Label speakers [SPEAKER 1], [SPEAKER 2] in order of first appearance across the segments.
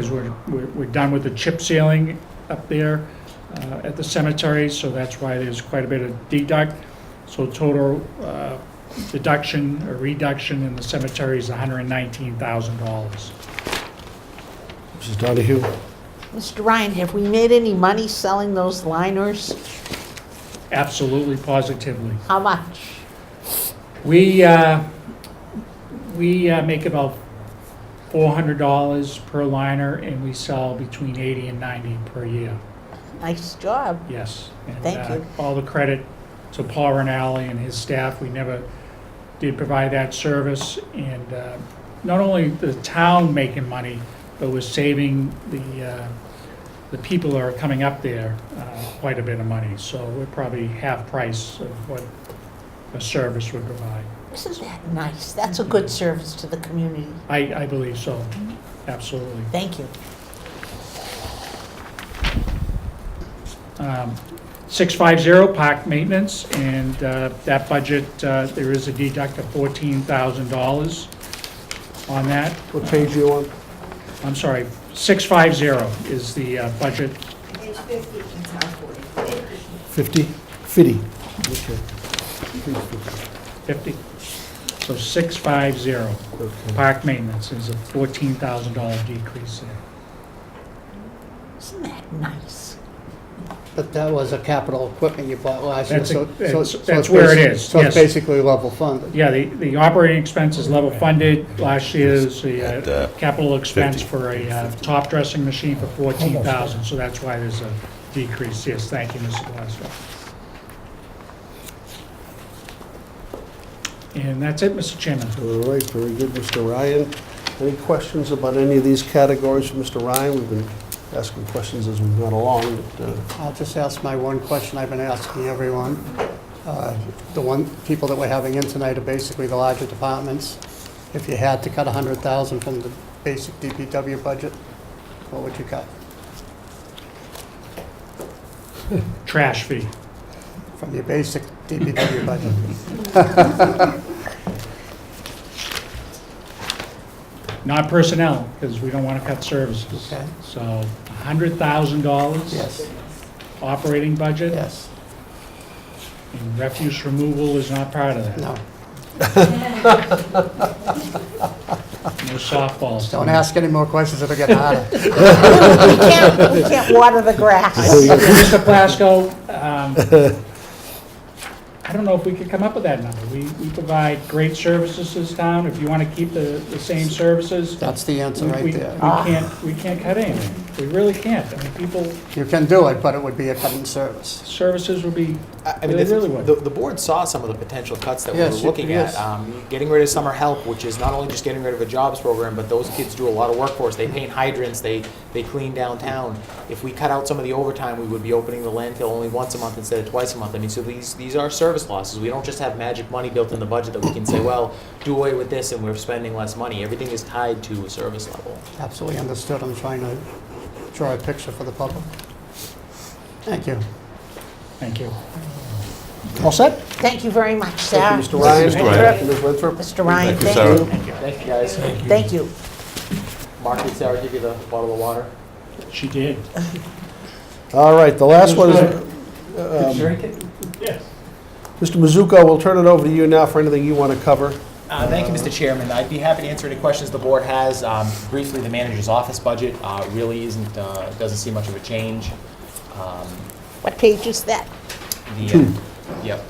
[SPEAKER 1] Because we're, we're we're done with the chip sealing up there uh, at the cemetery, so that's why there's quite a bit of deduct. So total uh, deduction or reduction in the cemetery is $119,000.
[SPEAKER 2] Mrs. Donahue?
[SPEAKER 3] Mr. Ryan, have we made any money selling those liners?
[SPEAKER 1] Absolutely positively.
[SPEAKER 3] How much?
[SPEAKER 1] We, uh, we uh, make about $400 per liner, and we sell between 80 and 90 per year.
[SPEAKER 3] Nice job.
[SPEAKER 1] Yes. and,
[SPEAKER 3] Thank
[SPEAKER 1] uh,
[SPEAKER 3] you.
[SPEAKER 1] All the credit to Paul Rinaldi and his staff. We never did provide that service. And uh, not only the town making money, but was saving the, uh, the people that are coming up there uh, quite a bit of money. So we're probably half price of what a service would provide.
[SPEAKER 3] Isn't that nice? That's a good service to the community.
[SPEAKER 1] I, I believe so,
[SPEAKER 3] Mm-hmm.
[SPEAKER 1] absolutely.
[SPEAKER 3] Thank you.
[SPEAKER 1] Um, 650 park maintenance, and uh, that budget, uh, there is a deduct of $14,000 on that.
[SPEAKER 2] What page are you on?
[SPEAKER 1] I'm sorry, 650 is the uh, budget.
[SPEAKER 4] Page 50 and top 40. 50.
[SPEAKER 2] 50? 50. Okay.
[SPEAKER 1] 50. So 650,
[SPEAKER 2] Okay.
[SPEAKER 1] park maintenance is a $14,000 decrease there.
[SPEAKER 3] Isn't that nice?
[SPEAKER 5] But that was a capital equipment you bought last year,
[SPEAKER 1] That's a-
[SPEAKER 5] so. so-
[SPEAKER 1] that's-
[SPEAKER 5] so it's
[SPEAKER 1] that's where it
[SPEAKER 5] basi-
[SPEAKER 1] is,
[SPEAKER 5] So it's
[SPEAKER 1] yes.
[SPEAKER 5] basically level funded.
[SPEAKER 1] Yeah, the, the operating expense is level funded. Last year's the
[SPEAKER 6] At,
[SPEAKER 1] uh,
[SPEAKER 6] uh,
[SPEAKER 1] capital expense
[SPEAKER 6] 50.
[SPEAKER 1] for a uh, top dressing machine for 14,000, so that's why there's a decrease. Yes, thank you, Mr. Glasgow. And that's it, Mr. Chairman.
[SPEAKER 2] All right, very good, Mr. Ryan. Any questions about any of these categories, from Mr. Ryan? We've been asking questions as we've gone along, but, uh,
[SPEAKER 5] I'll just ask my one question I've been asking everyone. Uh, The one, people that we're having in tonight are basically the larger departments. If you had to cut 100,000 from the basic DPW budget, what would you cut?
[SPEAKER 1] Trash fee.
[SPEAKER 5] From your basic DPW budget?
[SPEAKER 1] Not personnel, because we don't want to cut services.
[SPEAKER 5] Okay.
[SPEAKER 1] So $100,000.
[SPEAKER 5] Yes,
[SPEAKER 1] Operating budget,
[SPEAKER 5] yes,
[SPEAKER 1] and refuse removal is not part of that.
[SPEAKER 5] no.
[SPEAKER 1] No softballs.
[SPEAKER 5] Don't ask any more questions, it'll get harder.
[SPEAKER 3] We can't, we can't water the grass.
[SPEAKER 1] Mr. Plasko, um, I don't know if we could come up with that number. We, we provide great services to this town. If you want to keep the, the same services,
[SPEAKER 5] That's the answer
[SPEAKER 1] we, we
[SPEAKER 5] right
[SPEAKER 1] we
[SPEAKER 5] there.
[SPEAKER 1] can't, we can't cut anything. We really can't. I mean, people,
[SPEAKER 5] You can do it, but it would be a cut in service.
[SPEAKER 1] services would be,
[SPEAKER 7] I I
[SPEAKER 1] They
[SPEAKER 7] mean, the,
[SPEAKER 1] really would.
[SPEAKER 7] the, the board saw some of the potential cuts that
[SPEAKER 5] Yes,
[SPEAKER 7] we
[SPEAKER 5] it-
[SPEAKER 7] were looking
[SPEAKER 5] yes.
[SPEAKER 7] at. Um, getting rid of summer help, which is not only just getting rid of a jobs program, but those kids do a lot of work for us. They paint hydrants, they, they clean downtown. If we cut out some of the overtime, we would be opening the landfill only once a month instead of twice a month. I mean, so these, these are service losses. We don't just have magic money built in the budget that we can say, well, do away with this and we're spending less money. Everything is tied to a service level.
[SPEAKER 5] Absolutely understood. I'm trying to draw a picture for the public. Thank you.
[SPEAKER 1] thank you.
[SPEAKER 5] All set?
[SPEAKER 3] Thank you very much, Sarah.
[SPEAKER 2] Thank you, Mr. Ryan.
[SPEAKER 6] Mr. Ryan.
[SPEAKER 2] Ms. Winthrop.
[SPEAKER 3] Mr. Ryan,
[SPEAKER 6] Thank you,
[SPEAKER 3] thank
[SPEAKER 6] Sarah.
[SPEAKER 3] you.
[SPEAKER 7] Thank you, guys.
[SPEAKER 3] Thank you.
[SPEAKER 7] Mark, did Sarah give you the bottle of water?
[SPEAKER 1] She did.
[SPEAKER 2] All right, the last one is,
[SPEAKER 1] Um,
[SPEAKER 7] Drink it.
[SPEAKER 2] Mr. Mizuko, we'll turn it over to you now for anything you want to cover.
[SPEAKER 7] Uh, Thank you, Mr. Chairman. I'd be happy to answer any questions the board has. Um, Briefly, the manager's office budget uh, really isn't, uh, doesn't see much of a change. Um,
[SPEAKER 3] What page is that?
[SPEAKER 7] the, uh, Yep.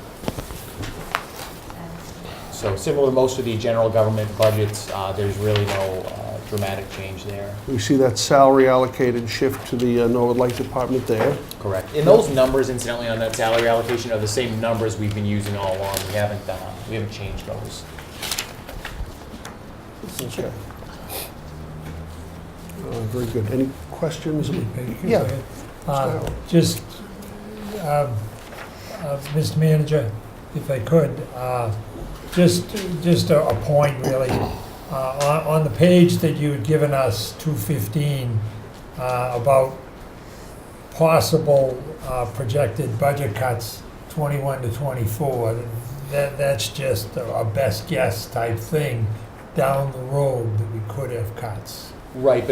[SPEAKER 7] So similar to most of the general government budgets, uh, there's really no uh, dramatic change there.
[SPEAKER 2] We see that salary allocated shift to the uh, Norwood Light Department there.
[SPEAKER 7] Correct. And those numbers incidentally on that salary allocation are the same numbers we've been using all along. We haven't, uh, we haven't changed those.
[SPEAKER 2] Okay. Uh, Very good. Any questions? Yeah.
[SPEAKER 8] Uh, Just, um, uh, Mr. Manager, if I could, uh, just, just a a point really. Uh, On on the page that you had given us, 215, uh, about possible uh, projected budget cuts, 21 to 24, that, that's just a a best guess type thing down the road that we could have cuts.
[SPEAKER 7] Right,